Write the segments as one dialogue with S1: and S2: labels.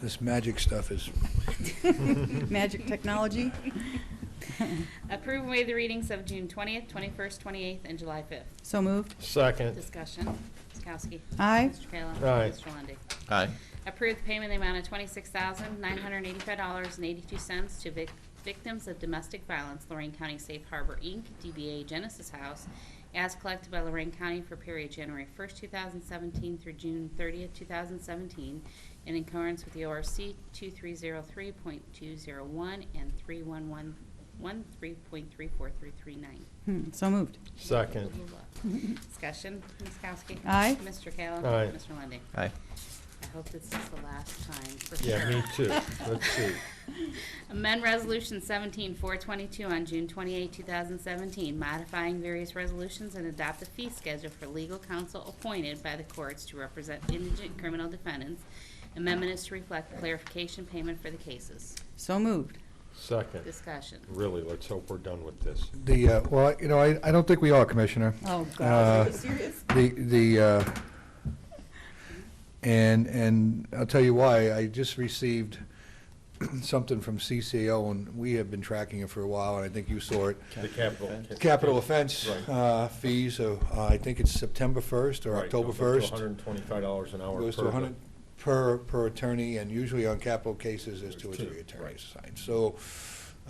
S1: this magic stuff is,
S2: Magic technology?
S3: Approve and waive the readings of June 20th, 21st, 28th, and July 5th.
S2: So moved.
S4: Second.
S3: Discussion. Ms. Kowski.
S2: Aye.
S3: Mr. Kayla.
S4: Aye.
S3: Mr. Lundey.
S5: aye,
S3: Approve the payment in the amount of $26,985.82 to vic- victims of domestic violence, Lorraine County Safe Harbor, Inc., DBA Genesis House, as collected by Lorraine County for period January 1st, 2017 through June 30th, 2017, in accordance with the ORC 2303.201 and 3111.3.3439.
S2: Hmm, So moved.
S4: Second.
S3: Discussion, Ms. Kowski.
S2: Aye.
S3: Mr. Kayla.
S4: Aye.
S3: Mr. Lundy.
S5: aye,
S3: I hope this is the last time for sure.
S4: Yeah, me too. Let's see.
S3: Amend Resolution 17422 on June 28, 2017, modifying various resolutions and adopt a fee schedule for legal counsel appointed by the courts to represent indigent criminal defendants. Amendment is to reflect clarification payment for the cases.
S2: So moved.
S4: Second.
S3: Discussion.
S4: Really, let's hope we're done with this.
S6: The, uh, well, you know, I, I don't think we are, Commissioner.
S2: Oh,
S6: Uh,
S2: God. Are you serious?
S6: The, the, uh, and, and I'll tell you why. I just received something from CCO, and we have been tracking it for a while, and I think you saw it.
S4: The capital.
S6: Capital offense
S4: Right.
S6: uh, fees, uh, I think it's September 1st or
S4: Right,
S6: October
S4: goes up
S6: 1st.
S4: to $125 an hour
S6: Goes to
S4: per-
S6: 100 per, per attorney, and usually on capital cases, there's two or
S4: Two,
S6: three attorneys
S4: right.
S6: assigned. So,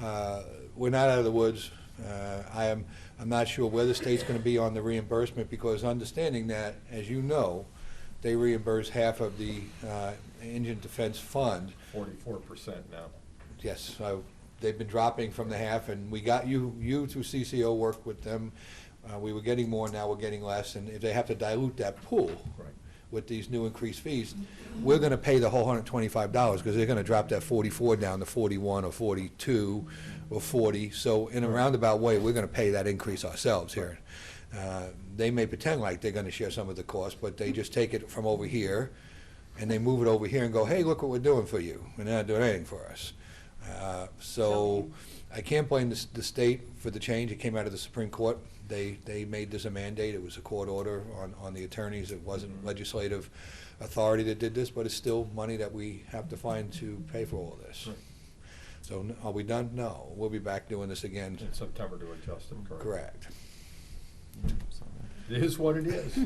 S6: uh, we're not out of the woods. Uh, I am, I'm not sure where the state's gonna be on the reimbursement, because understanding that, as you know, they reimburse half of the uh, indigent defense fund.
S4: 44% now.
S6: Yes, I- they've been dropping from the half, and we got, you, you through CCO worked with them. Uh, We were getting more, now we're getting less, and if they have to dilute that pool
S4: Right.
S6: with these new increased fees, we're gonna pay the whole hundred twenty-five dollars, because they're gonna drop that forty-four down to forty-one or forty-two or forty. So in a roundabout way, we're gonna pay that increase ourselves here. Uh, They may pretend like they're gonna share some of the cost, but they just take it from over here, and they move it over here and go, hey, look what we're doing for you, and they're not doing anything for us. Uh, So, I can't blame the, s- the state for the change, it came out of the Supreme Court. They, they made this a mandate, it was a court order on, on the attorneys, it wasn't legislative authority that did this, but it's still money that we have to find to pay for all this.
S4: Right.
S6: So, n- are we done? No, we'll be back doing this again,
S4: In September to adjust them, correct?
S6: correct.
S4: It is what it is.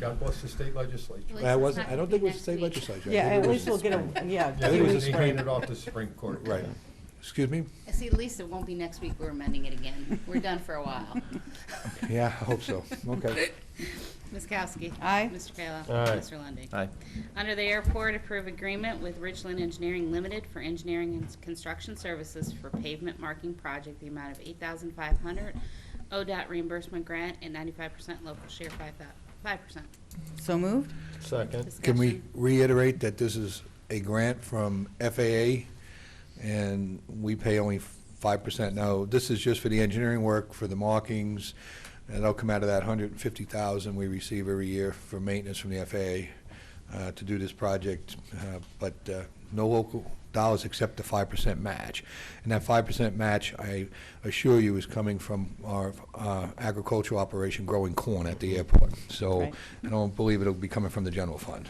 S4: God bless the state legislature.
S3: Well,
S6: That
S3: it's
S6: wasn't,
S3: not
S6: I don't
S3: gonna
S6: think it was the
S3: be next
S6: state
S3: week.
S6: legislature. I
S7: Yeah,
S6: think
S7: at
S6: it was-
S7: least we'll get a, yeah.
S4: Yeah,
S6: I
S4: they
S6: think it was
S4: just
S6: the
S4: handed off to Supreme Court.
S6: Right, excuse me?
S3: See, at least it won't be next week we're amending it again. We're done for a while.
S6: Yeah, I hope so, okay.
S3: Ms. Kowski.
S2: Aye.
S3: Mr. Kayla.
S4: Aye.
S3: Mr. Lundey.
S5: aye,
S3: Under the airport, approve agreement with Richland Engineering Limited for engineering and construction services for pavement marking project, the amount of eight thousand five hundred, ODOT reimbursement grant, and ninety-five percent local share, five percent.
S2: So moved.
S4: Second.
S6: Can we reiterate that this is a grant from FAA, and we pay only five percent? No, this is just for the engineering work, for the markings, and that'll come out of that hundred and fifty thousand we receive every year for maintenance from the FAA uh, to do this project, uh, but uh, no local dollars except the five percent match. And that five percent match, I assure you, is coming from our uh, agricultural operation growing corn at the airport. So
S2: Right.
S6: I don't believe it'll be coming from the general fund.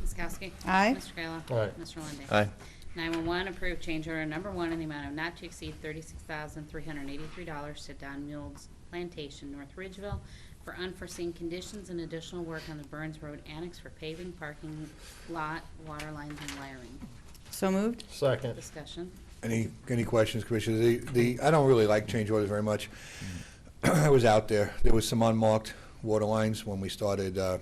S3: Ms. Kowski.
S2: Aye.
S3: Mr. Kayla.
S4: Aye.
S3: Mr. Lundey.
S5: aye,
S3: 911, approved change order number one in the amount of not to exceed $36,383 to Don Mule's Plantation, North Ridgeville, for unforeseen conditions and additional work on the Burns Road Annex for paving, parking lot, water lines, and wiring.
S2: So moved.
S4: Second.
S3: Discussion.
S6: Any, any questions, Commissioner? The, the, I don't really like change orders very much. I was out there, there was some unmarked water lines when we started, uh,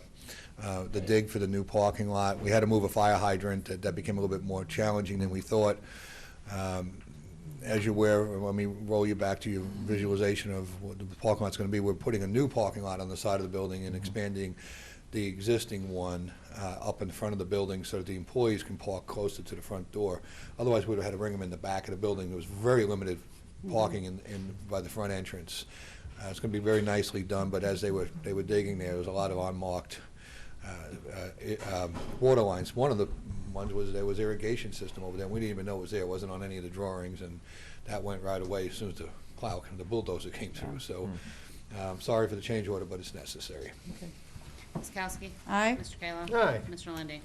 S6: uh, the dig for the new parking lot. We had to move a fire hydrant, that, that became a little bit more challenging than we thought. Um, As you're aware, let me roll you back to your visualization of what the parking lot's gonna be. We're putting a new parking lot on the side of the building and expanding the existing one uh, up in front of the building so that the employees can park closer to the front door. Otherwise, we'd have had to bring them in the back of the building. There was very limited parking in, in, by the front entrance. Uh, It's gonna be very nicely done, but as they were, they were digging there, there was a lot of unmarked uh, uh, i- um, water lines. One of the ones was, there was irrigation system over there, and we didn't even know it was there, it wasn't on any of the drawings, and that went right away as soon as the plow, the bulldozer came through, so, um, sorry for the change order, but it's necessary.
S3: Ms. Kowski.
S2: Aye.
S3: Mr. Kayla.
S4: Aye.
S3: Mr. Lundey.